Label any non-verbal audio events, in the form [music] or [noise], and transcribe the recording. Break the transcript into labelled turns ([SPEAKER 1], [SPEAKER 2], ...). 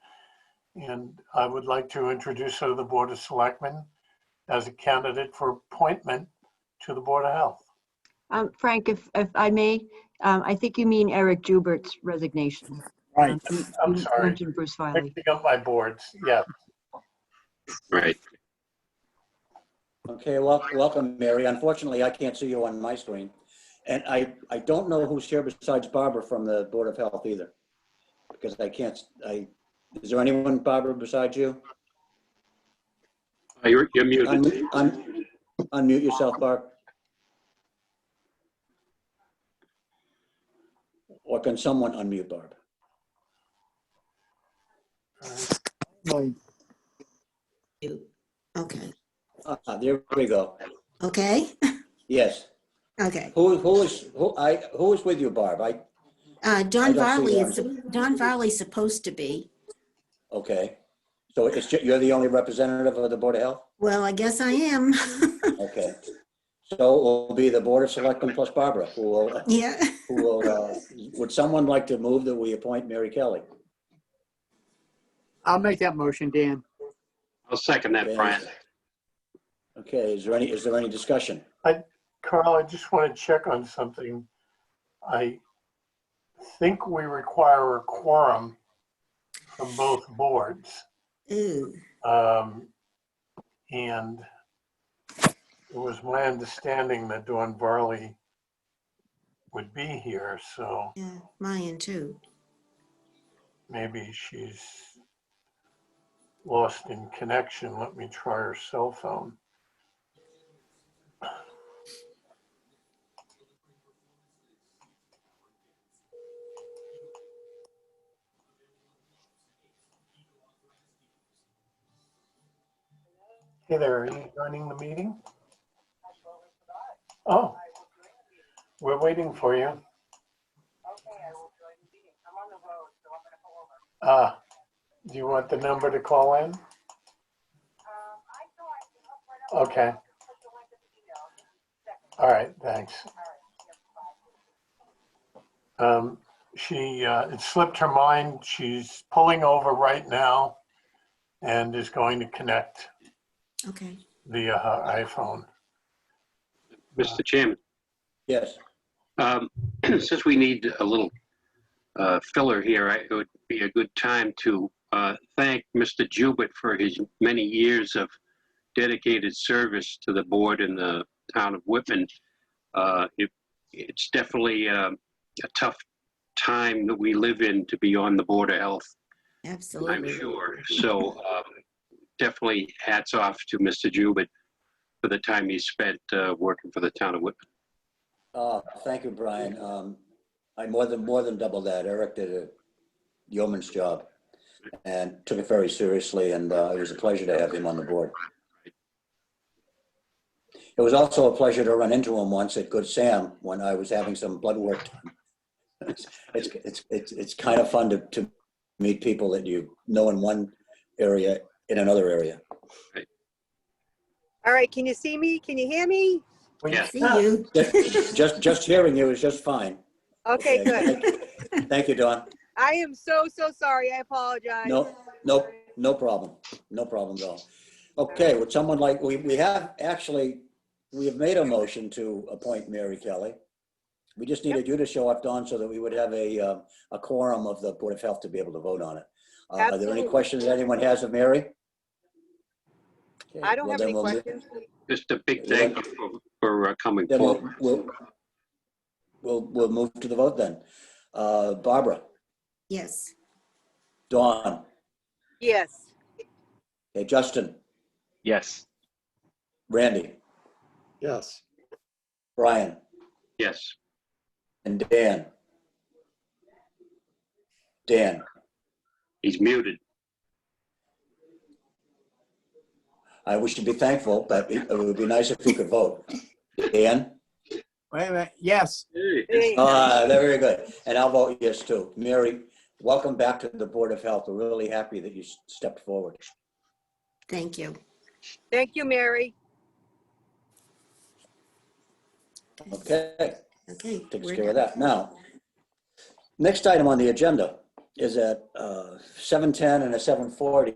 [SPEAKER 1] And I would like to introduce her to the Board of Selectmen as a candidate for appointment to the Board of Health.
[SPEAKER 2] Um, Frank, if, if I may, um, I think you mean Eric Jubert's resignation.
[SPEAKER 3] Right,
[SPEAKER 2] Um, you-
[SPEAKER 1] I'm
[SPEAKER 2] you
[SPEAKER 1] sorry.
[SPEAKER 2] mentioned Bruce Filey.
[SPEAKER 1] Picking up my boards, yeah.
[SPEAKER 4] Right.
[SPEAKER 3] okay, wel- welcome, Mary. Unfortunately, I can't see you on my screen. And I, I don't know who's here besides Barbara from the Board of Health either. Because I can't, I, is there anyone, Barbara, besides you?
[SPEAKER 4] Uh, You're, you're muted.
[SPEAKER 3] Unmute un- unmute yourself, Barb. Or can someone unmute Barb?
[SPEAKER 5] You, okay,
[SPEAKER 3] Ah, There we go.
[SPEAKER 5] okay,
[SPEAKER 3] Yes.
[SPEAKER 5] okay.
[SPEAKER 3] Who, who is, who, I, who is with you, Barb? I,
[SPEAKER 5] Uh,
[SPEAKER 3] I don't
[SPEAKER 5] Don
[SPEAKER 3] see
[SPEAKER 5] Varley
[SPEAKER 3] that.
[SPEAKER 5] is, Don Varley's supposed to be.
[SPEAKER 3] okay. So it's, ju- you're the only representative of the Board of Health?
[SPEAKER 5] Well, I guess I am. [laughs]
[SPEAKER 3] Okay. So it will be the Board of Selectmen plus Barbara, who will,
[SPEAKER 5] Yeah,
[SPEAKER 3] who will, uh, would someone like to move that we appoint Mary Kelly?
[SPEAKER 6] I'll make that motion, Dan.
[SPEAKER 4] I'll second that, Brian.
[SPEAKER 3] Okay, is there any, is there any discussion?
[SPEAKER 1] Carl, I just want to check on something. I think we require a quorum from both boards.
[SPEAKER 5] ooh,
[SPEAKER 1] Um, And it was my understanding that Dawn Varley would be here, so
[SPEAKER 5] yeah, mine too.
[SPEAKER 1] maybe she's lost in connection. Let me try her cell phone. Hey there, are you joining the meeting? Oh, we're waiting for you. Uh, do you want the number to call in? Okay. All right, thanks. Um, she, uh, it slipped her mind. She's pulling over right now and is going to connect
[SPEAKER 5] Okay,
[SPEAKER 1] via her iPhone.
[SPEAKER 4] Mr. Chairman,
[SPEAKER 3] Yes,
[SPEAKER 4] um, [clears throat] since we need a little uh, filler here, I- it would be a good time to uh, thank Mr. Jubert for his many years of dedicated service to the board in the town of Whitman. Uh, it- It's definitely um, a tough time that we live in to be on the Board of Health I'm
[SPEAKER 5] absolutely.
[SPEAKER 4] sure. So um, definitely hats off to Mr. Jubert for the time he spent uh, working for the town of Whitman.
[SPEAKER 3] Uh, thank you, Brian. Um, I more than, more than double that. Eric did a yeoman's job and took it very seriously, and, uh, it was a pleasure to have him on the board. It was also a pleasure to run into him once at Good Sam when I was having some blood work. done. It's, it's- it's, it's, it's kind of fun to, to meet people that you know in one area, in another area.
[SPEAKER 7] All right, can you see me? Can you hear me?
[SPEAKER 1] We-
[SPEAKER 4] Yes.
[SPEAKER 5] See you.
[SPEAKER 3] Just, just- just hearing you is just fine.
[SPEAKER 7] Okay, good.
[SPEAKER 3] good. Thank you, Don.
[SPEAKER 7] I am so, so sorry. I apologize.
[SPEAKER 3] No, no, no problem. No problem at all. Okay, would someone like, we, we have actually, we have made a motion to appoint Mary Kelly. We just needed you to show up, Dawn, so that we would have a, uh, a quorum of the Board of Health to be able to vote on it. Uh, Are there any
[SPEAKER 7] Absolutely.
[SPEAKER 3] questions that anyone has of Mary? Okay,
[SPEAKER 7] I don't
[SPEAKER 3] well,
[SPEAKER 7] have
[SPEAKER 3] then
[SPEAKER 7] any
[SPEAKER 3] we'll leave-
[SPEAKER 7] questions.
[SPEAKER 4] Just a big thank you for, for uh, coming
[SPEAKER 3] Then we'll,
[SPEAKER 4] forward.
[SPEAKER 3] we'll, we'll, we'll move to the vote then. Uh, Barbara,
[SPEAKER 5] Yes,
[SPEAKER 3] Dawn,
[SPEAKER 7] Yes,
[SPEAKER 3] hey, Justin,
[SPEAKER 8] Yes.
[SPEAKER 3] Randy,
[SPEAKER 6] Yes.
[SPEAKER 3] Brian,
[SPEAKER 4] Yes.
[SPEAKER 3] and Dan. Dan,
[SPEAKER 4] He's muted.
[SPEAKER 3] I wish to be thankful, but it it would be nice if you could vote. Dan?
[SPEAKER 6] Wait a minute, yes.
[SPEAKER 7] Hey,
[SPEAKER 3] Ah, very good. And I'll vote yes too. Mary, welcome back to the Board of Health. We're really happy that you s- stepped forward.
[SPEAKER 5] thank you.
[SPEAKER 7] thank you, Mary.
[SPEAKER 3] Okay,
[SPEAKER 5] Okay.
[SPEAKER 3] takes
[SPEAKER 5] we're
[SPEAKER 3] care of
[SPEAKER 5] done.
[SPEAKER 3] that. Now, next item on the agenda is at uh, 7:10 and a 7:40.